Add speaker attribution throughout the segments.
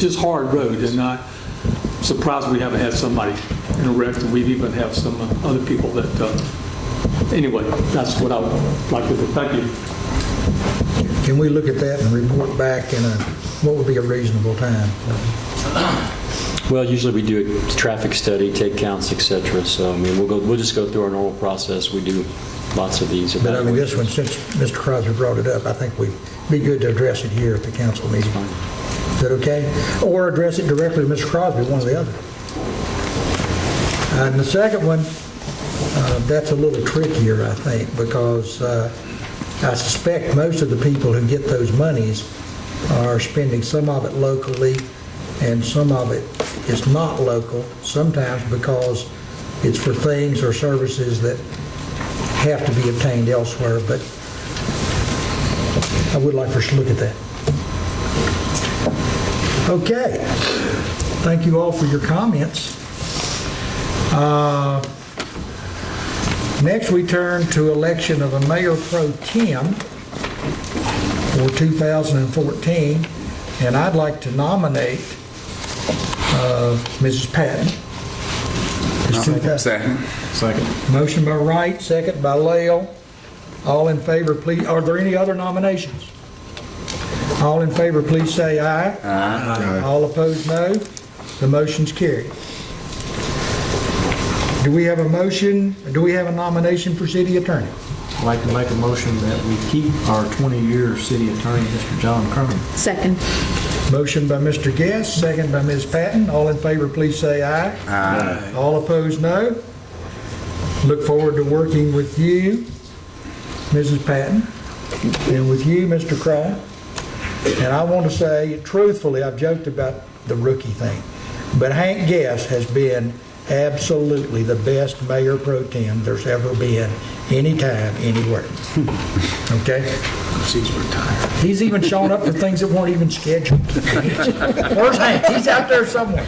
Speaker 1: It's just hard road, and not surprised we haven't had somebody in a wreck, and we've even have some other people that, uh, anyway, that's what I would like to, do. thank you.
Speaker 2: Can we look at that and report back in a, what would be a reasonable time?
Speaker 3: Well, usually we do a traffic study, take counts, et cetera. So, I mean, we'll go, we'll just go through our normal process. We do lots of these.
Speaker 2: But I mean, this one,
Speaker 3: evaluations.
Speaker 2: since Mr. Crosby brought it up, I think we'd be good to address it here at the council meeting. Is that okay? Or address it directly to Mr. Crosby, one or the other. And the second one, uh, that's a little trickier, I think, because uh, I suspect most of the people who get those monies are spending some of it locally and some of it is not local, sometimes because it's for things or services that have to be obtained elsewhere, but I would like for us to look at that. Okay. Thank you all for your comments. Uh, Next, we turn to election of a mayor pro tem for 2014, and I'd like to nominate uh, Mrs. Patton. It's 2000
Speaker 4: Second.
Speaker 2: Motion by Wright, second by Lael. All in favor, please, are there any other nominations? All in favor, please say aye. Aye. All opposed, no. The motion's carried. Do we have a motion, do we have a nomination for city attorney?
Speaker 5: I'd like to make a motion that we keep our 20-year city attorney, Mr. John Cronin.
Speaker 6: Second.
Speaker 2: Motion by Mr. Guest, second by Ms. Patton. All in favor, please say aye. Aye. All opposed, no. Look forward to working with you, Mrs. Patton, and with you, Mr. Crown. And I want to say, truthfully, I've joked about the rookie thing, but Hank Guest has been absolutely the best mayor pro tem there's ever been, anytime, anywhere. Okay? He's even shown up for things that weren't even scheduled. Where's Hank? He's out there somewhere.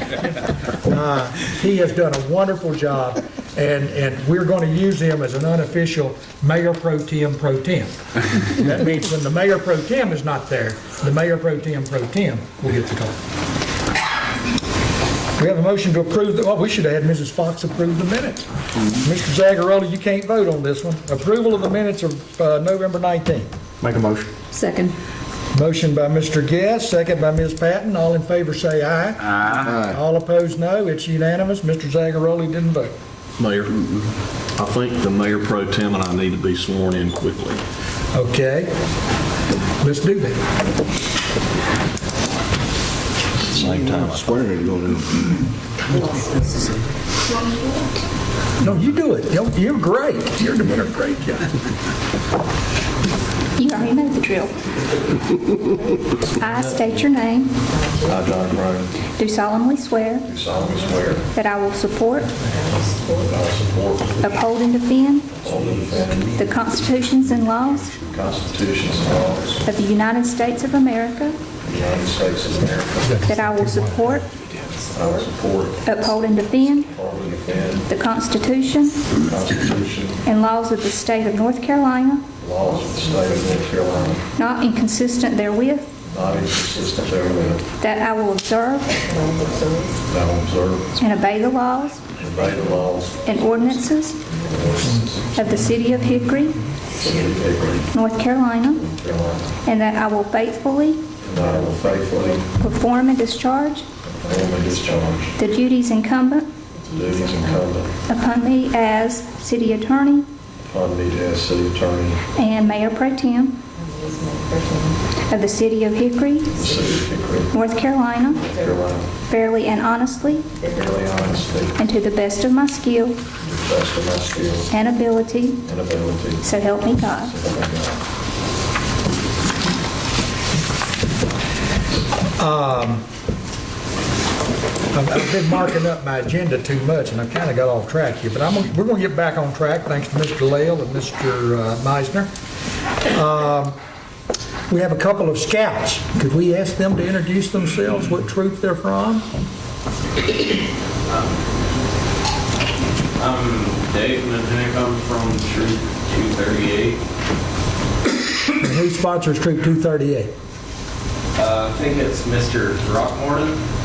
Speaker 2: Uh, He has done a wonderful job, and, and we're going to use him as an unofficial mayor pro tem pro tem. That means when the mayor pro tem is not there, the mayor pro tem pro tem will get the call. We have a motion to approve, the- well, we should have had Mrs. Fox approve the minutes. Mr. Zagarelli, you can't vote on this one. Approval of the minutes of uh, November 19th.
Speaker 5: Make a motion.
Speaker 6: Second.
Speaker 2: Motion by Mr. Guest, second by Ms. Patton. All in favor say aye. Aye. All opposed, no. It's unanimous. Mr. Zagaroli didn't vote.
Speaker 7: Mayor, I think the mayor pro tem and I need to be sworn in quickly.
Speaker 2: Okay. Let's do that.
Speaker 3: Same time.
Speaker 2: No, you do it. You're- You're great. You're doing a great job.
Speaker 8: You already know the drill. I state your name,
Speaker 9: I, John Brown,
Speaker 8: do solemnly swear
Speaker 9: do solemnly swear that
Speaker 8: that I will support,
Speaker 9: I will support,
Speaker 8: uphold, and defend
Speaker 9: hold, and defend
Speaker 8: the constitutions and laws
Speaker 9: the constitutions and laws
Speaker 8: of the United States of America,
Speaker 9: of the United States of America.
Speaker 8: that I will support,
Speaker 9: I will support,
Speaker 8: uphold, and defend
Speaker 9: hold, and defend
Speaker 8: the Constitution
Speaker 9: the Constitution
Speaker 8: and laws of the state of North Carolina,
Speaker 9: and laws of the state of North Carolina,
Speaker 8: not inconsistent therewith,
Speaker 9: not inconsistent therewith,
Speaker 8: that I will observe
Speaker 9: that I will observe
Speaker 8: and obey the laws
Speaker 9: and obey the laws
Speaker 8: and ordinances
Speaker 9: and ordinances
Speaker 8: of the city of Hickory,
Speaker 9: of the city of Hickory,
Speaker 8: North Carolina,
Speaker 9: North Carolina,
Speaker 8: and that I will faithfully
Speaker 9: and that I will faithfully
Speaker 8: perform and discharge
Speaker 9: perform and discharge
Speaker 8: The duties incumbent
Speaker 9: the duties incumbent
Speaker 8: upon me as city attorney
Speaker 9: upon me as city attorney
Speaker 8: and mayor pro tem of the city of Hickory,
Speaker 9: of the city of Hickory,
Speaker 8: North Carolina,
Speaker 9: North Carolina,
Speaker 8: fairly and honestly,
Speaker 9: fairly honestly,
Speaker 8: and to the best of my skill
Speaker 9: best of my skills
Speaker 8: and ability,
Speaker 9: and ability.
Speaker 8: so help me God.
Speaker 9: So help me God.
Speaker 2: I've I've been marking up my agenda too much, and I've kind of got off track here, but I'm, gonna- we're going to get back on track, thanks to Mr. Lael and Mr. uh, Meisner. Um, We have a couple of scouts. Could we ask them to introduce themselves, what troop they're from?
Speaker 10: I'm Dave Minnick, I'm from Troop 238.
Speaker 2: And who sponsors Troop 238?
Speaker 10: Uh, Uh, I think it's Mr. Rockmorton.